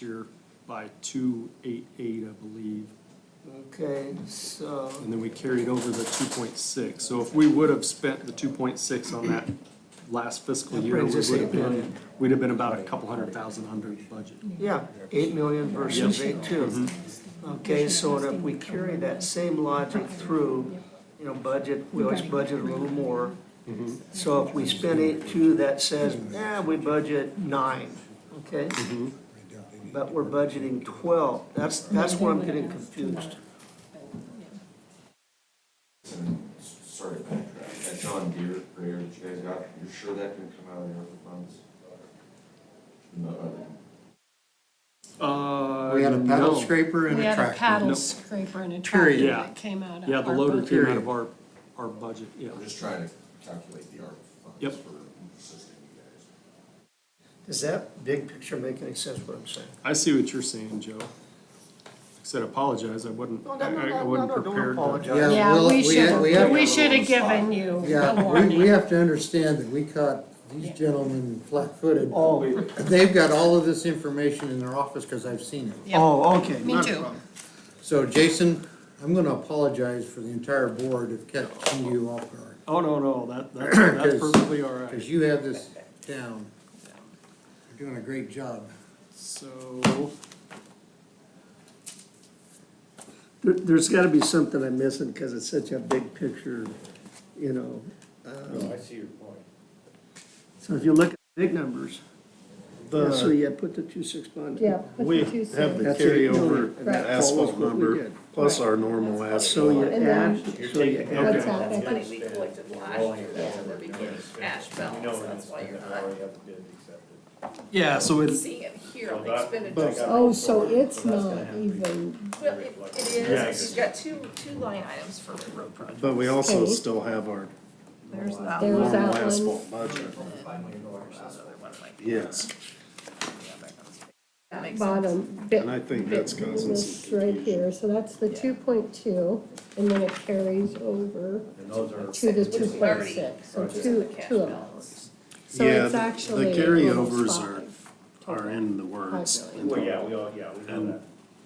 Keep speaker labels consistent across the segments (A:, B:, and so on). A: year by two eight eight, I believe.
B: Okay, so,
A: And then we carried over the two point six. So if we would have spent the two point six on that last fiscal
B: That
A: year, we
B: brings
A: would
B: us
A: have
B: eight million.
A: been, we'd have been about a couple hundred thousand under the budget.
B: yeah, eight million versus eight two.
C: Mm-hmm.
B: Okay, so if we carry that same logic through, you know, budget, we always budget a little more. Mm-hmm. So if we spend eight two, that says, eh, we budget nine, okay? But we're budgeting twelve, that's, that's where I'm getting confused.
D: Sorry to backtrack, that John Deere grader that you guys got, you're sure that can come out of the ARPA funds? No, other-
A: Uh,
E: We had a paddle
A: no.
E: scraper and
F: We
E: a
F: had a
E: tractor.
F: paddle
A: Nope.
F: scraper and a
E: Period.
F: tractor
A: Yeah.
F: that came out of.
A: Yeah, the
F: ARPA.
A: loader came out of our, our budget, yeah.
D: I'm just trying to calculate the ARPA
A: Yep.
D: funds for assisting you guys.
B: Does that big picture make any sense what I'm saying?
A: I see what you're saying, Joe. Like I said, apologize, I wouldn't,
B: No,
A: I
B: no, no,
A: I
B: no,
A: wasn't
B: no, don't
A: prepared. to-
B: apologize.
E: Yeah,
F: Yeah,
E: we'll-
F: we
E: we had- we
F: should,
E: had-
F: we should have given you the
E: Yeah, we, we
F: warning.
E: have to understand that we caught these gentlemen flat-footed.
B: Oh,
E: They've got all of this information in their office because I've seen it.
F: Yep.
B: oh, okay.
F: Me
B: not a
F: too.
B: problem.
E: So Jason, I'm gonna apologize for the entire board of catching you off guard,
A: Oh, no, no, that, that's, that's perfectly all right.
E: because you have this down. You're doing a great job.
A: So,
C: There, there's gotta be something I'm missing, cause it's such a big picture, you know. um.
G: I see your point.
C: So if you look at big numbers, yeah, so
H: The,
C: yeah, put the two six bond.
H: yeah, put
G: we
H: the two
G: have the
C: That's
H: cents.
C: what we
G: carryover
C: did.
G: and that
H: Right.
C: Follows
G: asphalt
C: what we
G: number,
C: did.
G: plus our normal
C: So you
G: asphalt.
H: And
C: add,
H: then-
C: so you add,
H: What's that? That's-
I: money we collected last year, so we're beginning cash balance, that's why you're not
A: yeah, so it's,
I: seeing it here on the expenditures.
G: But-
H: Oh, so it's not even,
I: Well, it, it is, you've got two, two line items for road projects.
G: But we also
H: Okay.
G: still have our
I: There's that one.
H: There's
G: normal
H: that one.
G: asphalt budget, yes.
I: That makes sense.
H: bottom bit.
G: And I think
H: bit
G: that's causing
H: this
G: some
H: Right
G: confusion.
H: here, so that's the two point two, and then it carries over to the
I: Which
H: two
I: is
H: point
I: already
H: six, so
I: just
H: two,
I: the cash
H: two of
I: balance.
H: those. So
G: Yeah,
H: it's
G: the- the
H: actually
G: carryovers
H: almost
G: are-
H: five,
G: Are in the works.
H: Five million.
G: And
J: Yeah, we all, yeah, we know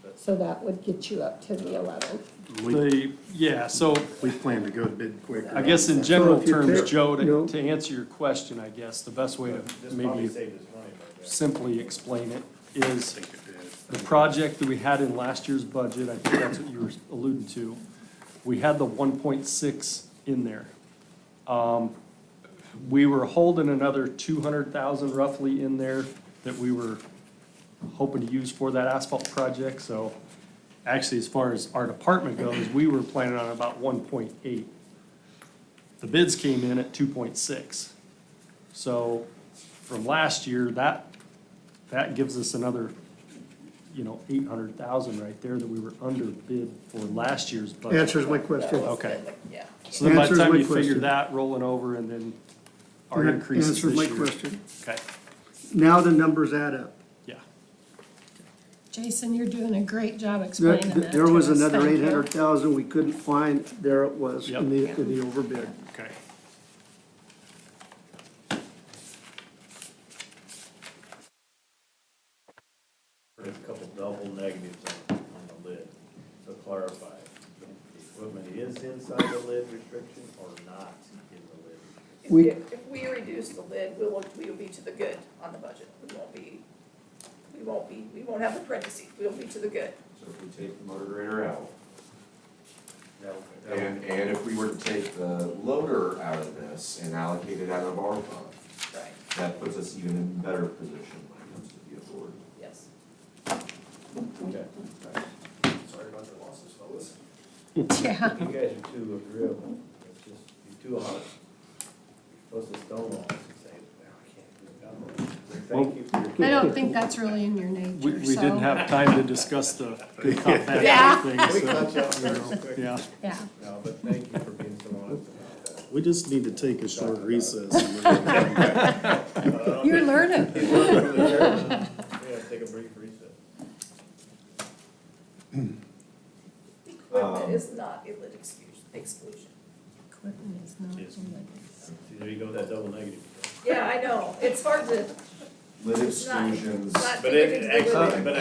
J: that.
H: so that would get you up to the eleven.
G: We,
A: the, yeah, so
G: we plan to go a bit quicker.
A: I guess in general
C: So if you
A: terms,
C: take-
A: Joe,
C: no.
A: to, to answer your question, I guess, the best way to
J: This probably
A: maybe
J: saved us money by that.
A: simply explain it
G: I
A: is
G: think it did.
A: the project that we had in last year's budget, I think that's what you were alluding to, we had the one point six in there. Um, We were holding another two hundred thousand roughly in there that we were hoping to use for that asphalt project, so actually, as far as our department goes, we were planning on about one point eight. The bids came in at two point six. So from last year, that, that gives us another, you know, eight hundred thousand right there that we were under bid for last year's budget.
C: answers my
I: That
C: question.
I: was
A: Okay.
I: the- Yeah.
A: So then by the
C: Answers
A: time
C: my
A: you figure
C: question.
A: that rolling over and then our
C: That
A: increases
C: Answers
A: this
C: my
A: year.
C: question.
A: Okay,
C: Now the numbers add up.
A: yeah.
F: Jason, you're doing a great job
C: There,
F: explaining that
C: there
F: to
C: was
F: us.
C: another
F: Thank
C: eight
F: you.
C: hundred thousand we couldn't find, there it was, in the, in the overbid.
A: Okay.
J: There's a couple double negatives on, on the lid, so clarify. The equipment is inside the lid restriction or not in the lid restriction?
I: If,
C: We-
I: if if we reduce the lid, we will, we will be to the good on the budget. We won't be, we won't be, we won't have the parentheses. We'll be to the good.
D: So if we take the motor grader out,
J: That'll- that'll-
D: and, and if we were to take the loader out of this and allocate it out of ARPA,
I: Right.
D: that puts us even in better position when it comes to the authority.
I: Yes.
J: Okay.
D: Sorry about the losses, fellas.
F: Yeah,
J: You guys are too agreeable, it's just, you're too honest. You're supposed to stonewall us and say, "Well, I can't do that. Thank you for your.
F: I don't think that's really in your nature, so.
A: We, we didn't have time to discuss the good cop,
F: Yeah.
A: bad cop
J: We
A: thing, so,
J: cut you off real quick.
A: yeah.
F: Yeah.
J: No, but thank you for being so honest about that.
G: We just need to take a short recess. and we're gonna come back.
F: You're learning.
J: Yeah, take a brief recess.
I: Equipment is not a lid exclusion, exclusion.
F: Equipment is not in the-
J: See, there you go, that double negative.
I: Yeah, I know. It's hard to,
D: Lit
I: it's not,
D: exclusions.
I: it's not
J: But
I: figured into
J: it,
I: the lid.
J: actually, but